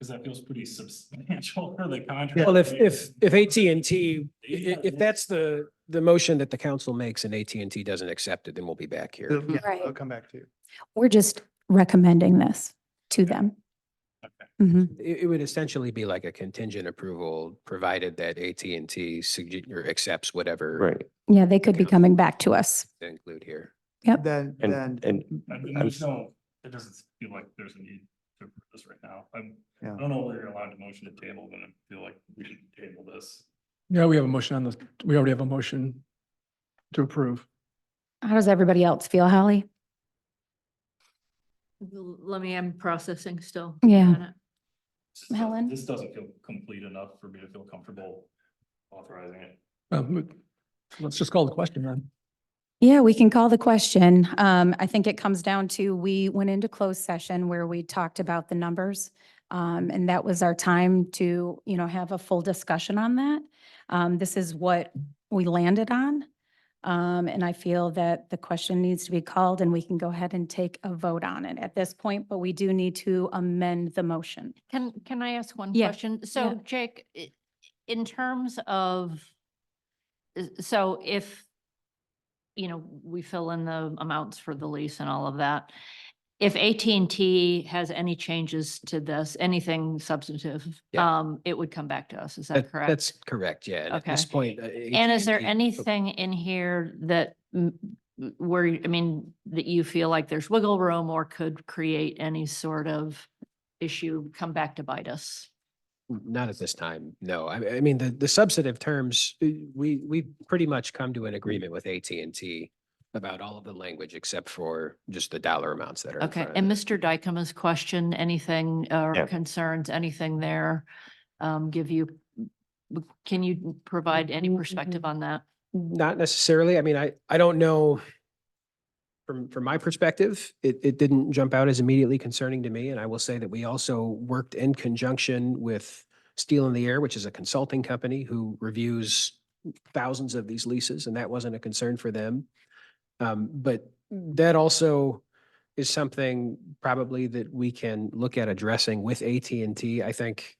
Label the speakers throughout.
Speaker 1: Cause that feels pretty substantial for the contract.
Speaker 2: Well, if,
Speaker 1: right?
Speaker 2: if, if AT&T, i-
Speaker 1: Yeah.
Speaker 2: i- if that's the, the motion that the council makes and AT&T doesn't accept it, then we'll be back here.
Speaker 3: They'll- yeah,
Speaker 4: Right.
Speaker 3: They'll come back to you.
Speaker 4: We're just recommending this to them.
Speaker 1: Okay.
Speaker 4: Mhm.
Speaker 2: It, it would essentially be like a contingent approval, provided that AT&T sugge- or accepts whatever
Speaker 5: Right.
Speaker 4: Yeah, they could be coming back to us.
Speaker 2: to include here.
Speaker 4: Yep.
Speaker 3: Then, then.
Speaker 5: And, and
Speaker 1: I mean,
Speaker 5: I'm
Speaker 1: there's
Speaker 5: s-
Speaker 1: no, it doesn't feel like there's a need to approve this right now. I'm, I
Speaker 3: Yeah.
Speaker 1: don't know where you're allowed to motion to table, but I feel like we should table this.
Speaker 6: Yeah, we have a motion on the, we already have a motion to approve.
Speaker 4: How does everybody else feel, Holly?
Speaker 7: L- Let me, I'm processing still.
Speaker 4: Yeah.
Speaker 7: on it.
Speaker 1: This doesn't-
Speaker 4: Helen?
Speaker 1: This doesn't feel complete enough for me to feel comfortable authorizing it.
Speaker 6: Um, Let's just call the question then.
Speaker 4: Yeah, we can call the question. Um, I think it comes down to, we went into closed session where we talked about the numbers. Um, and that was our time to, you know, have a full discussion on that. Um, this is what we landed on. Um, and I feel that the question needs to be called and we can go ahead and take a vote on it at this point, but we do need to amend the motion.
Speaker 7: Can, can I ask one
Speaker 4: Yeah,
Speaker 7: question? So Jake, i- in terms of, i- so if, you know, we fill in the amounts for the lease and all of that, if at and T has any changes to this, anything substantive,
Speaker 2: Yeah.
Speaker 7: um, it would come back to us. Is that
Speaker 2: That-
Speaker 7: correct?
Speaker 2: That's correct, yeah. And At this
Speaker 7: Okay.
Speaker 2: point. uh,
Speaker 7: And is there anything in here that m- m- where, I mean, that you feel like there's wiggle room or could create any sort of issue come back to bite us?
Speaker 2: oh, Not at this time, no. I, I mean, the, the substantive terms, uh, we, we pretty much come to an agreement with AT&T about all of the language except for just the dollar amounts that are. in
Speaker 7: Okay,
Speaker 2: front of
Speaker 7: and
Speaker 2: it.
Speaker 7: Mr. Dykema's question, anything or
Speaker 5: Yeah.
Speaker 7: concerns, anything there? Um, give you, can you provide any perspective on that?
Speaker 2: Not necessarily. I mean, I, I don't know. From, from my perspective, it, it didn't jump out as immediately concerning to me. And I will say that we also worked in conjunction with Steel in the Air, which is a consulting company who reviews thousands of these leases, and that wasn't a concern for them. Um, but that also is something probably that we can look at addressing with AT&T. I think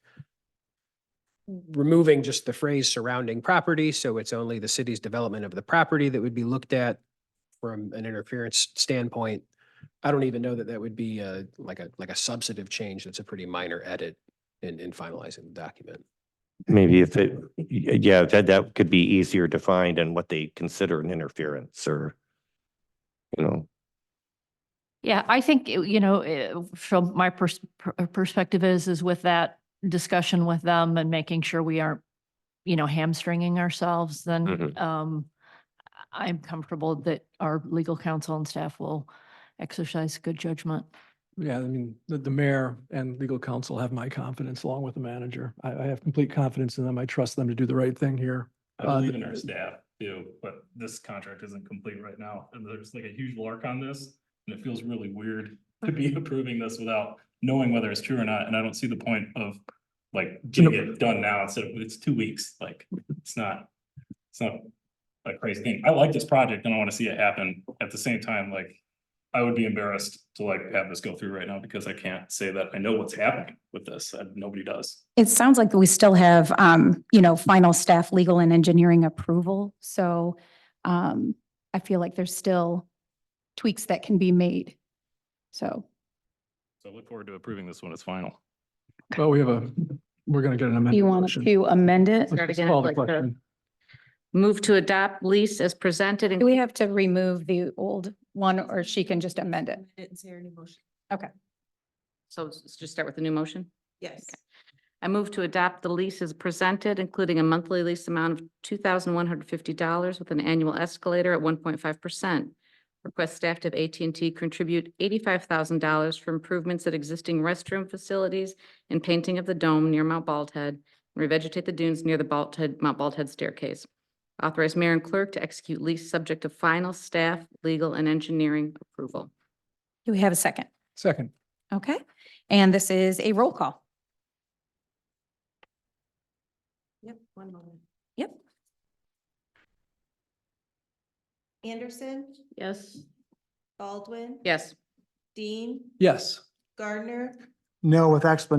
Speaker 2: removing just the phrase surrounding property, so it's only the city's development of the property that would be looked at from an interference standpoint. I don't even know that that would be uh like a, like a substantive change. That's a pretty minor edit in, in finalizing the document.
Speaker 5: maybe if it, y- yeah, that, that could be easier defined and what they consider an interference or, you know,
Speaker 7: Yeah, I think, it- you know, eh, from my pers- per- uh, perspective is, is with that discussion with them and making sure we aren't, you know, hamstringing ourselves, then,
Speaker 5: Mhm.
Speaker 7: um, I- I'm comfortable that our legal counsel and staff will exercise good judgment.
Speaker 6: Yeah, I mean, the, the mayor and legal counsel have my confidence along with the manager. I, I have complete confidence in them. I trust them to do the right thing here.
Speaker 1: I
Speaker 6: Uh,
Speaker 1: believe in
Speaker 6: th-
Speaker 1: our staff too, but this contract isn't complete right now, and there's like a huge lark on this. And it feels really weird to be approving this without knowing whether it's true or not, and I don't see the point of like getting it done now instead of, it's two weeks, like, it's not, it's not a crazy thing. I like this project and I wanna see it happen. At the same time, like, I would be embarrassed to like have this go through right now because I can't say that I know what's happening with this, and nobody does.
Speaker 4: It sounds like we still have, um, you know, final staff, legal and engineering approval. So, um, I feel like there's still tweaks that can be made. So,
Speaker 1: So I look forward to approving this when it's final.
Speaker 6: Well, we have a, we're going to get an
Speaker 4: do
Speaker 6: amendment.
Speaker 4: you want to amend it?
Speaker 6: Let's
Speaker 8: Start
Speaker 6: just
Speaker 8: again,
Speaker 6: call the
Speaker 8: like the-
Speaker 6: question.
Speaker 8: Move to adopt lease as presented and.
Speaker 4: Do we have to remove the old one or she can just amend it?
Speaker 8: So let's just start with the new motion.
Speaker 9: Yes.
Speaker 8: I move to adopt the lease as presented, including a monthly lease amount of two thousand one hundred fifty dollars with an annual escalator at one point five percent. Request staff to have at and T contribute eighty-five thousand dollars for improvements at existing restroom facilities and painting of the dome near Mount Bald Head, and revegetate the dunes near the Bald Head, Mount Bald Head staircase. Authorize mayor and clerk to execute lease subject to final staff, legal, and engineering approval.
Speaker 4: Do we have a second?
Speaker 6: Second,
Speaker 4: Okay. And this is a roll call.
Speaker 9: Yep, one moment.
Speaker 4: Yep.
Speaker 9: Anderson,
Speaker 7: Yes.
Speaker 9: Baldwin.
Speaker 8: Yes.
Speaker 9: Dean,
Speaker 6: yes.
Speaker 9: Gardner,
Speaker 3: No, with explanation